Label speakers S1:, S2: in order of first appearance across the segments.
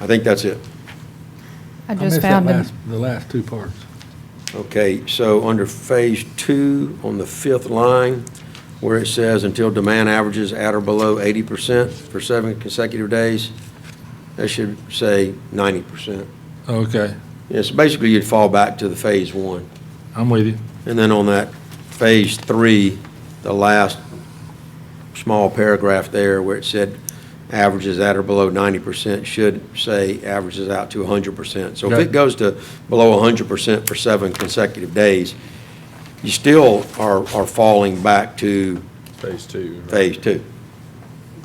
S1: I think that's it.
S2: I
S3: missed
S2: just
S3: that
S2: found them.
S3: last- The last two parts.
S1: Okay, so under Phase Two, on the fifth line, where it says until demand averages at or below eighty percent for seven consecutive days, that should say ninety percent.
S3: Okay,
S1: Yes, basically you'd fall back to the Phase One.
S3: I'm with you.
S1: And then on that Phase Three, the last small paragraph there where it said averages at or below ninety percent should say averages out to hundred percent. So if
S3: Okay.
S1: it goes to below hundred percent for seven consecutive days, you still are, are falling back to
S4: Phase two. right?
S1: Phase Two.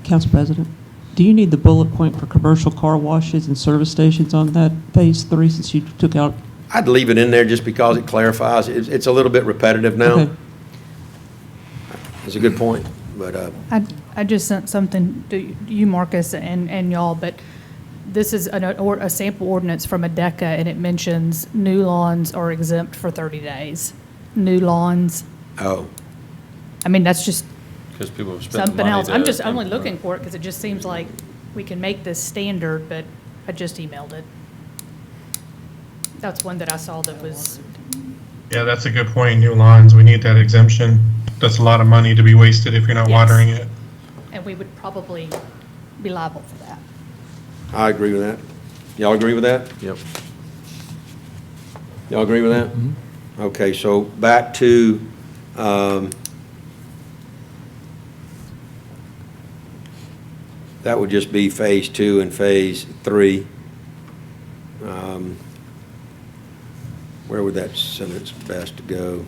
S5: Council President, do you need the bullet point for commercial car washes and service stations on that phase three since you took out?
S1: I'd leave it in there just because it clarifies. It's, it's a little bit repetitive now.
S5: Okay.
S1: It's a good point, but, uh,
S2: I, I just sent something to you, Marcus, and, and y'all, but this is an, or, a sample ordinance from ADECA, and it mentions new lawns are exempt for thirty days. New lawns,
S1: oh,
S2: I mean, that's just
S4: Because people have spent the
S2: something
S4: money
S2: else. I'm
S4: to-
S2: just only looking for it because it just seems like we can make this standard, but I just emailed it. That's one that I saw that was,
S6: Yeah, that's a good point. New lawns, we need that exemption. That's a lot of money to be wasted if you're not
S2: Yes.
S6: watering it.
S2: and we would probably be liable for that.
S1: I agree with that. Y'all agree with that?
S4: Yep.
S1: Y'all agree with that?
S3: Mm-hmm.
S1: Okay, so back to, um, that would just be phase two and phase three. Um, Where would that sentence best go?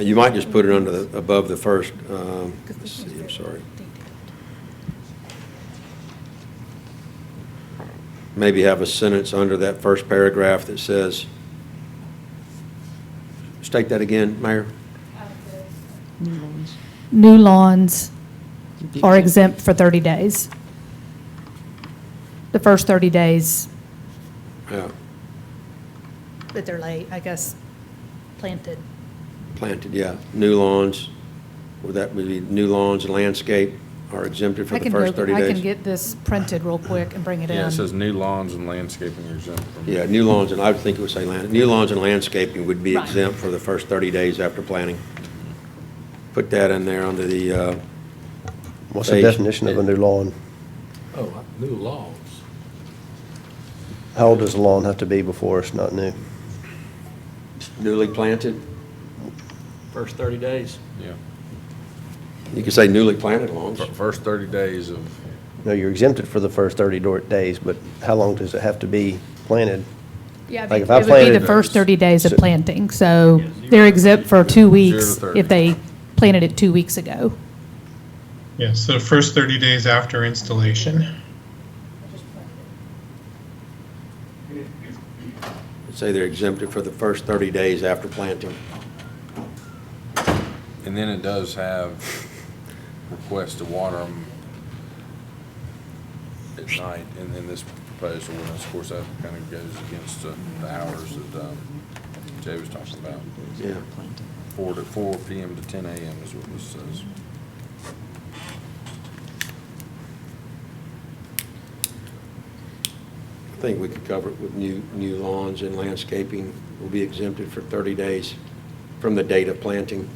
S1: You might just put it under the, above the first, um, let's see, I'm sorry. maybe have a sentence under that first paragraph that says, state that again, Mayor?
S2: New lawns are exempt for 30 days. The first 30 days
S1: Yeah,
S2: that they're late, I guess, planted.
S1: planted, yeah, new lawns, would that be new lawns and landscape are exempted for
S2: I
S1: the
S2: can
S1: first
S2: go-
S1: 30
S2: I can
S1: days?
S2: get this printed real quick and bring it in.
S4: Yeah, it says new lawns and landscaping are exempt from.
S1: Yeah, new lawns, and I would think it would say land, new lawns and landscaping would be
S2: Right.
S1: exempt for the first 30 days after planting. Put that in there under the, uh,
S7: What's the
S1: Page.
S7: definition of a new lawn?
S3: Oh, new laws.
S7: How old does a lawn have to be before it's not new?
S1: newly planted.
S8: first 30 days.
S4: Yeah.
S1: You could say newly planted lawns.
S4: Fir- First thirty days of,
S7: No, you're exempted for the first 30 do- days, but how long does it have to be planted?
S2: Yeah, I
S7: Like
S2: mean,
S7: if I
S2: it would be the
S7: planted-
S2: first 30 days of
S7: So-
S2: planting, so they're exempt for two weeks
S4: 30.
S2: if they planted it two weeks ago.
S6: Yeah, so first 30 days after installation.
S1: Say they're exempted for the first 30 days after planting.
S4: and then it does have requests to water them at night, and then this proposed ordinance, of course, that kind of goes against the the hours that, um, Jay was talking about.
S1: Yeah.
S4: Four to, four PM to ten AM is what this says.
S1: I think we could cover it with new, new lawns and landscaping will be exempted for 30 days from the date of planting.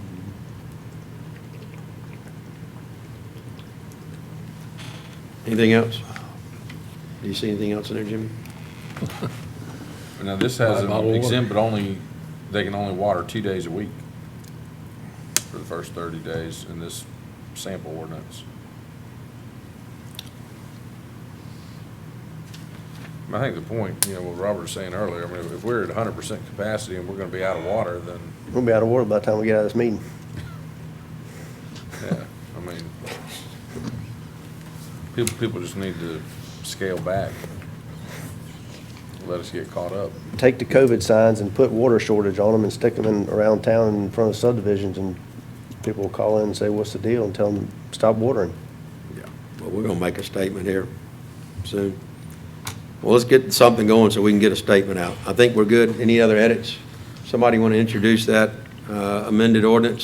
S1: Anything else? Do you see anything else in there, Jimmy?
S4: Now, this has
S3: Buy a bottle of
S4: an exempt, but only, they can only water two days a week for the first thirty days in this sample ordinance. I think the point, you know, what Robert was saying earlier, I mean, if we're at hundred percent capacity and we're gonna be out of water, then,
S7: We'll be out of water by the time we get out of this meeting.
S4: yeah, I mean, people, people just need to scale back. Let us get caught up.
S7: Take the COVID signs and put water shortage on them and stick them in, around town in front of subdivisions, and people will call in and say, what's the deal? And tell them, stop watering.
S4: Yeah.
S1: Well, we're going to make a statement here soon. Well, let's get something going so we can get a statement out. I think we're good. Any other edits? Somebody want to introduce that uh, amended ordinance?